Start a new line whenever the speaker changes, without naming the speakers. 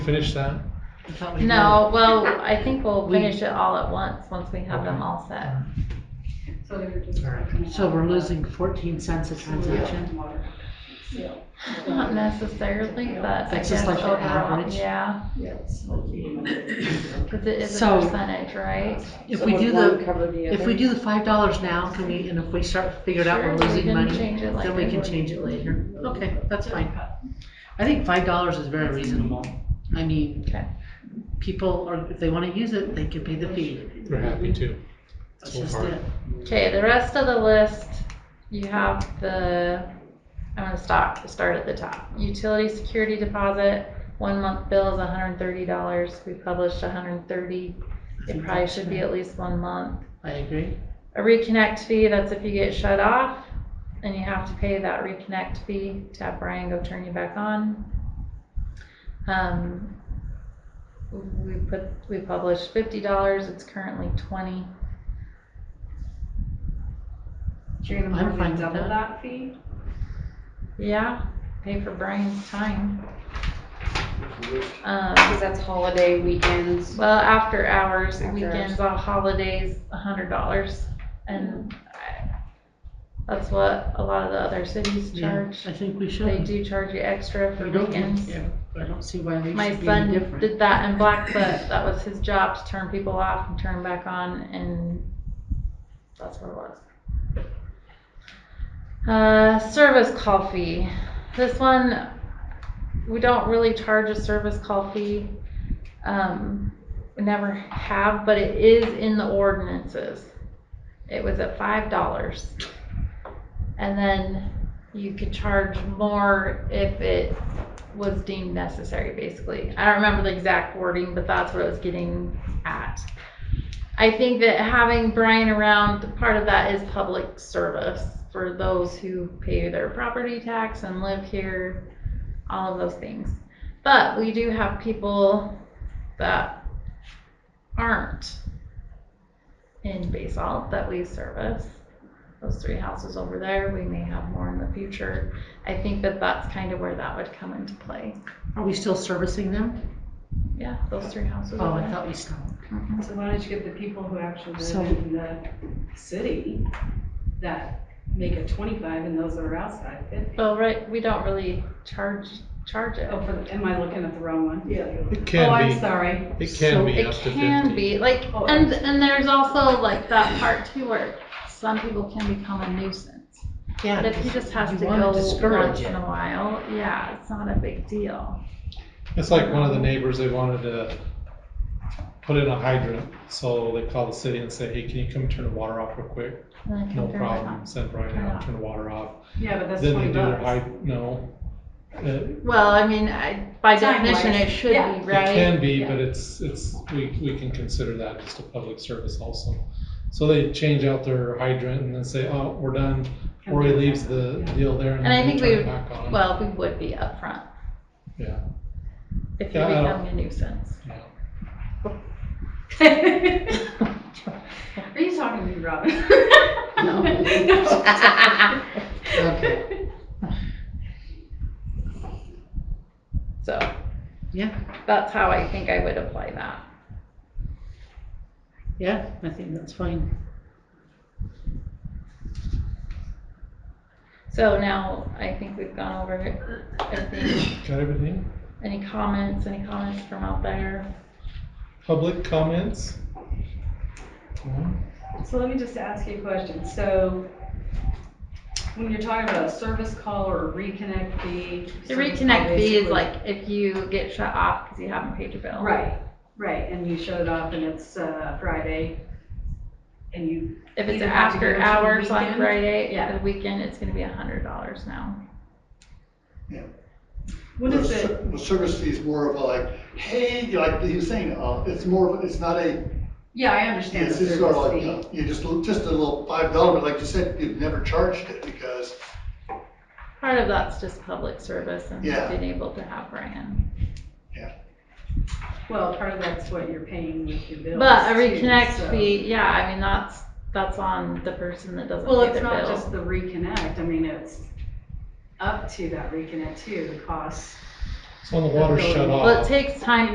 finish that?
No, well, I think we'll finish it all at once, once we have them all set.
So they're just.
So we're losing fourteen cents a transaction?
Not necessarily, but I
It's
guess
just like
overall,
an average.
yeah, because it is a
So-
percentage, right?
If we do the, if we do the five dollars now, can we, and if we start figuring out we're
Sure, we
losing
can
money,
change it
then we
later.
can change it later. Okay, that's fine. I think five dollars is very reasonable. I mean,
Okay.
people are, if they wanna use it, they can pay the fee.
We're happy to.
That's
So
just
far.
it.
Okay, the rest of the list, you have the, I'm gonna stop, start at the top. Utility security deposit, one month bill is hundred and thirty dollars, we published hundred and thirty. It probably should be at least one month.
I agree.
A reconnect fee, that's if you get shut off and you have to pay that reconnect fee to have Brian go turn you back on. Um, we put, we published fifty dollars, it's currently twenty.
You're
I'm
gonna
fine
probably
with
double
that.
that fee?
Yeah, pay for Brian's time. Um,
Because that's holiday weekends.
well, after hours,
After
weekends, all holidays, a hundred dollars. And I- that's what a lot of the other cities
Yeah,
charge.
I think we
They
should.
do charge you extra for
We don't-
weekends.
yeah, I don't see why they
My
should be any
son
different.
did that in Blackfoot. That was his job to turn people off and turn 'em back on and that's what it was. Uh, service call fee. This one, we don't really charge a service call fee. Um, we never have, but it is in the ordinances. It was at five dollars. And then you could charge more if it was deemed necessary, basically. I don't remember the exact wording, but that's what I was getting at. I think that having Brian around, part of that is public service for those who pay their property tax and live here, all of those things. But we do have people that aren't in basalt that we service. Those three houses over there, we may have more in the future. I think that that's kind of where that would come into play.
Are we still servicing them?
Yeah, those three houses.
Oh,
over
I
there.
thought we stopped.
So why don't you get the people who actually
So-
live in the city that make it twenty-five and those that are outside fifty?
Well, right, we don't really charge, charge it.
Oh, for, the- am I looking at the wrong one? Yeah.
It
Oh, I'm
can
sorry.
be, it can be
It
up to fifty.
can be, like,
Oh,
and, and there's also like that part too where some people can become a nuisance.
Yeah.
But if he just has
you
to
wanna
go
discourage
once
it.
in a while, yeah, it's not a big deal.
It's like one of the neighbors, they wanted to put in a hydrant, so they called the city and said, hey, can you come turn the water off real quick?
And I can
No
turn it
problem,
on.
send Brian out, turn the water off.
Yeah, but that's
Then they do
twenty
their
bucks.
hyd, no. It
Well, I mean, I, by
Time-wise,
definition, it should
yeah.
be,
it
right?
can be,
Yeah.
but it's, it's, we, we can consider that just a public service also. So they change out their hydrant and then say, oh, we're done, Roy leaves the deal there and
And I
then we
think we-
turn it back on.
Well, we would be upfront.
Yeah.
If you
Yeah, I don't-
become a nuisance.
Are you talking to me, Robin?
No. Okay.
So.
Yeah.
That's how I think I would apply that.
Yeah, I think that's fine.
So now I think we've gone over everything.
Got everything?
Any comments, any comments from out there?
Public comments?
So let me just ask you a question. So when you're talking about a service call or a reconnect fee.
The
service call
reconnect fee is
basically-
like if you get shut off because you haven't paid your bill.
Right, right, and you showed up and it's uh, Friday and you,
If it's
You have to go
after
to the
hours like
weekend?
Friday,
Yeah.
the weekend, it's gonna be a hundred dollars now.
what is
The
it?
ser- The service fee is more of a like, hey, you like he was saying, uh, it's more of, it's not a,
Yeah, I understand the
it's just sort of
service
like,
fee.
uh, you just, just a little five dollar, but like you said, you've never charged it because,
Part of that's just public service and
Yeah.
being able to have Brian.
Well, part of that's what you're paying with your bills.
But a
too,
reconnect
so-
fee, yeah, I mean, that's, that's on the person that doesn't
Well,
pay
it's
their
not
bill.
just the reconnect, I mean, it's up to that reconnect too, the cost
So when the water's shut off.
Well, it takes time